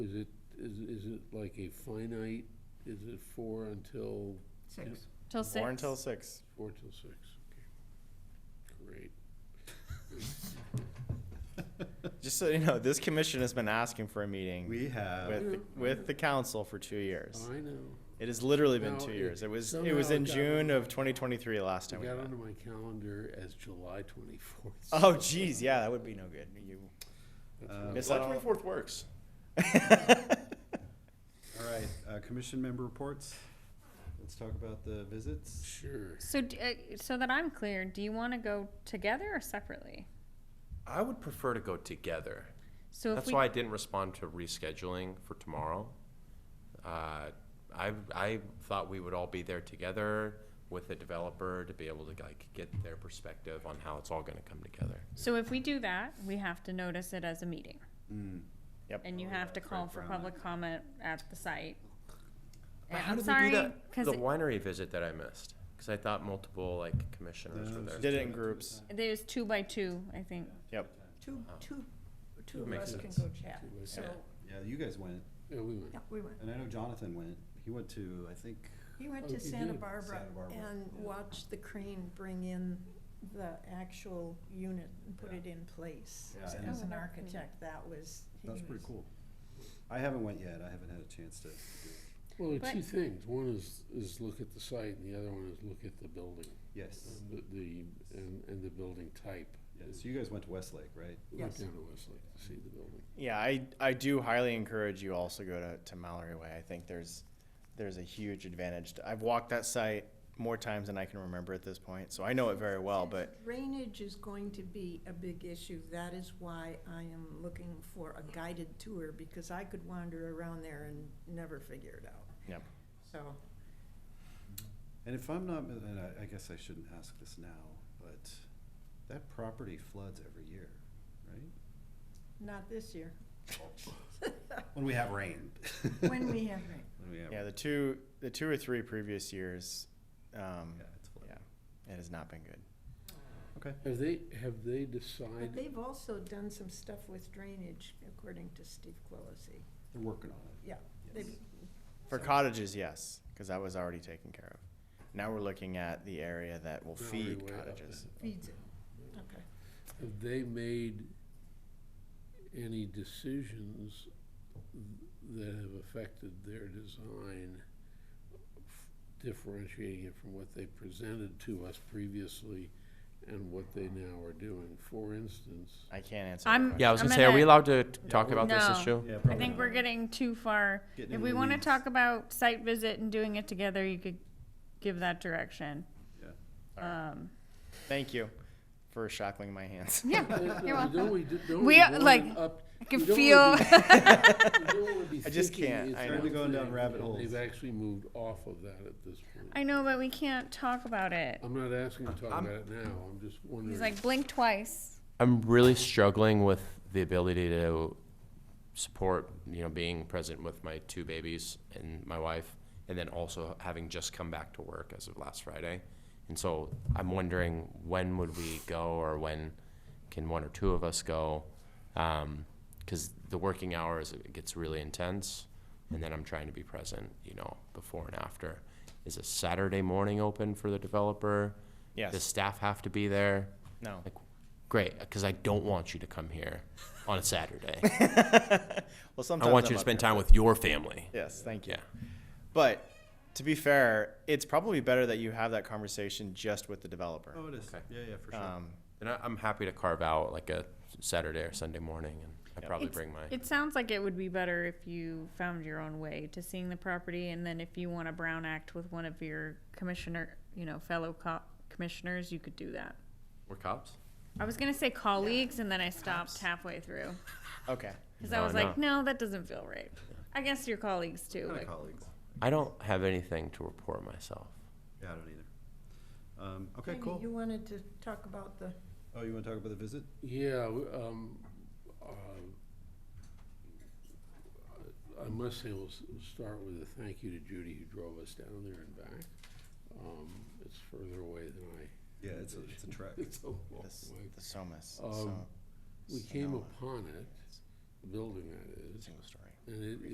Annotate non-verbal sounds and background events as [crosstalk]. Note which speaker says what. Speaker 1: Is it, is, is it like a finite, is it four until,
Speaker 2: Six.
Speaker 3: Till six.
Speaker 4: Four until six.
Speaker 1: four till six? Okay,
Speaker 4: [laughs]
Speaker 1: Great.
Speaker 4: Just so you know, this commission has been asking for a meeting
Speaker 5: We have,
Speaker 4: with, the- with the council for two years.
Speaker 1: I know.
Speaker 4: It has literally been
Speaker 1: Now,
Speaker 4: two
Speaker 1: it-
Speaker 4: years. It was, it was
Speaker 1: somehow
Speaker 4: in
Speaker 1: it got
Speaker 4: June
Speaker 1: on-
Speaker 4: of twenty twenty-three last
Speaker 1: It
Speaker 4: time we
Speaker 1: got
Speaker 4: met.
Speaker 1: onto my calendar as July twenty-fourth.
Speaker 4: Oh geez, yeah, that would be no good. You miss
Speaker 6: July
Speaker 4: out on-
Speaker 6: twenty-fourth works.
Speaker 5: all right, uh, commission member reports. Let's talk about the visits.
Speaker 1: Sure.
Speaker 3: So, d- uh, so that I'm clear, do you want to go together or separately?
Speaker 6: I would prefer to go together.
Speaker 3: So if
Speaker 6: That's
Speaker 3: we,
Speaker 6: why I didn't respond to rescheduling for tomorrow. Uh, I, I thought we would all be there together with the developer to be able to like get their perspective on how it's all gonna come together.
Speaker 3: so if we do that, we have to notice it as a meeting.
Speaker 4: Mm, Yep.
Speaker 3: And you have to call for public comment at the site.
Speaker 6: But
Speaker 3: And
Speaker 6: how
Speaker 3: I'm
Speaker 6: did
Speaker 3: sorry,
Speaker 6: we do that?
Speaker 3: 'cause
Speaker 6: The
Speaker 3: it-
Speaker 6: winery visit that I missed, because I thought multiple like commissioners were there.
Speaker 4: Did it in groups.
Speaker 3: there's two by two, I think.
Speaker 4: Yep.
Speaker 2: Two,
Speaker 5: Oh.
Speaker 2: two, two of
Speaker 6: Makes
Speaker 2: us can
Speaker 6: sense.
Speaker 2: go chat,
Speaker 1: Two ways.
Speaker 2: so,
Speaker 5: Yeah, you guys went,
Speaker 1: Yeah, we went.
Speaker 2: yeah, we went.
Speaker 5: and I know Jonathan went. He went to, I think,
Speaker 2: He went
Speaker 1: Oh,
Speaker 2: to
Speaker 1: you
Speaker 2: Santa
Speaker 1: did.
Speaker 2: Barbara
Speaker 5: Santa Barbara,
Speaker 2: and
Speaker 5: yeah.
Speaker 2: watched the crane bring in the actual unit and put
Speaker 5: Yeah.
Speaker 2: it in place.
Speaker 5: Yeah,
Speaker 2: As-
Speaker 5: and-
Speaker 2: As an architect, that was. he
Speaker 5: that's pretty
Speaker 2: was-
Speaker 5: cool. I haven't went yet. I haven't had a chance to. do it.
Speaker 1: Well, there are
Speaker 3: But-
Speaker 1: two things. One is, is look at the site and the other one is look at the building,
Speaker 5: Yes,
Speaker 1: the, the- and, and the building type.
Speaker 5: yes. You guys went to Westlake, right?
Speaker 1: We went
Speaker 2: Yes.
Speaker 1: down to Westlake to see the building.
Speaker 4: Yeah, I, I do highly encourage you also go to, to Mallory Way. I think there's, there's a huge advantage. to- I've walked that site more times than I can remember at this point, so I know it very well, but
Speaker 2: Drainage is going to be a big issue. That is why I am looking for a guided tour, because I could wander around there and never figure it out.
Speaker 4: Yep.
Speaker 2: So,
Speaker 5: And if I'm not, and I, I guess I shouldn't ask this now, but that property floods every year, right?
Speaker 2: not
Speaker 5: [laughs]
Speaker 2: this year,
Speaker 5: When we have rain. [laughs]
Speaker 2: when we have rain.
Speaker 5: When we have.
Speaker 4: yeah, the two, the two or three previous years, um,
Speaker 5: Yeah, it's flooded.
Speaker 4: yeah, it has not been good.
Speaker 5: Okay.
Speaker 1: Have they, have they
Speaker 2: But
Speaker 1: decided,
Speaker 2: they've also done some stuff with drainage, according to Steve Quillisi.
Speaker 5: They're working on it.
Speaker 2: Yeah,
Speaker 5: Yes.
Speaker 2: they've-
Speaker 4: For cottages, yes, because that was already taken care of. Now we're looking at the area that will
Speaker 1: Mallory
Speaker 4: feed
Speaker 1: Way up
Speaker 4: cottages.
Speaker 2: feeds it. Okay.
Speaker 1: have they made any decisions that have affected their design, differentiating it from what they presented to us previously and what they now are doing? For instance,
Speaker 4: I can't answer. that
Speaker 3: I'm-
Speaker 4: question.
Speaker 6: Yeah, I was
Speaker 3: I'm
Speaker 6: gonna say, are
Speaker 3: gonna-
Speaker 6: we allowed to t- talk
Speaker 5: we-
Speaker 6: about this
Speaker 3: No.
Speaker 6: issue?
Speaker 5: Yeah,
Speaker 3: I
Speaker 5: probably
Speaker 3: think
Speaker 5: not.
Speaker 3: we're getting too far.
Speaker 5: Getting
Speaker 3: If
Speaker 5: in
Speaker 3: we
Speaker 5: the
Speaker 3: want to
Speaker 5: weeds.
Speaker 3: talk about site visit and doing it together, you could give that direction.
Speaker 5: Yeah.
Speaker 3: Um,
Speaker 4: Thank you for shackling my hands. [laughs]
Speaker 3: yeah, [laughs]
Speaker 1: [laughs] No,
Speaker 3: you're welcome.
Speaker 1: Don't we, don't
Speaker 3: We
Speaker 1: we
Speaker 3: are,
Speaker 1: want
Speaker 3: like,
Speaker 1: it up?
Speaker 3: I can
Speaker 1: we don't
Speaker 3: feel.
Speaker 1: wanna
Speaker 3: [laughs]
Speaker 1: be- we don't wanna be
Speaker 4: I just
Speaker 1: thinking
Speaker 4: can't,
Speaker 1: it's
Speaker 4: I
Speaker 1: one
Speaker 4: know.
Speaker 5: We're going down
Speaker 1: thing,
Speaker 5: rabbit
Speaker 1: and
Speaker 5: holes.
Speaker 1: They've actually moved off of that at this point.
Speaker 3: I know, but we can't talk about it.
Speaker 1: I'm not asking you to talk
Speaker 6: I'm-
Speaker 1: about it now, I'm just wondering.
Speaker 3: He's like, blink twice.
Speaker 6: I'm really struggling with the ability to support, you know, being present with my two babies and my wife, and then also having just come back to work as of last Friday. And so I'm wondering when would we go, or when can one or two of us go? Because the working hours it gets really intense, and then I'm trying to be present, you know, before and after. Is a Saturday morning open for the developer? Does
Speaker 4: Yes,
Speaker 6: staff have to be there?
Speaker 4: no.
Speaker 6: Like, great, because I don't want you to come here on a [laughs] Saturday.
Speaker 4: Well, sometimes
Speaker 6: I want
Speaker 4: I'm
Speaker 6: you to
Speaker 4: up
Speaker 6: spend
Speaker 4: here.
Speaker 6: time with your family.
Speaker 4: Yes, thank you.
Speaker 6: Yeah.
Speaker 4: But to be fair, it's probably better that you have that conversation just with the developer.
Speaker 5: Oh, it is.
Speaker 6: Okay.
Speaker 5: Yeah, yeah, for sure.
Speaker 4: Um,
Speaker 6: And I, I'm happy to carve out like a Saturday or Sunday morning, and I probably
Speaker 3: It's-
Speaker 6: bring my.
Speaker 3: It sounds like it would be better if you found your own way to seeing the property, and then if you want a Brown Act with one of your commissioner, you know, fellow co- commissioners, you could do that.
Speaker 6: We're cops.
Speaker 3: I was gonna say colleagues, and then I stopped halfway through
Speaker 4: Okay.
Speaker 3: because I
Speaker 6: No,
Speaker 3: was like, no, that doesn't feel right. I guess your colleagues too.
Speaker 5: Kind of
Speaker 3: Like,
Speaker 5: colleagues.
Speaker 6: I don't have anything to report myself.
Speaker 5: Yeah, I don't either. Um, okay,
Speaker 2: Jamie,
Speaker 5: cool.
Speaker 2: You wanted to talk about the,
Speaker 5: Oh, you want to talk about the visit?
Speaker 1: Yeah, w- um, uh, I must say, we'll s- start with a thank you to Judy who drove us down there and back. Um, It's further away than I,
Speaker 5: Yeah, it's a, it's a trek.
Speaker 1: it's a long
Speaker 4: This,
Speaker 1: way.
Speaker 4: the Somas.
Speaker 1: Um,
Speaker 4: so-
Speaker 1: We came
Speaker 4: Sonoma.
Speaker 1: upon it, the building that is,
Speaker 4: Single story.
Speaker 1: And it,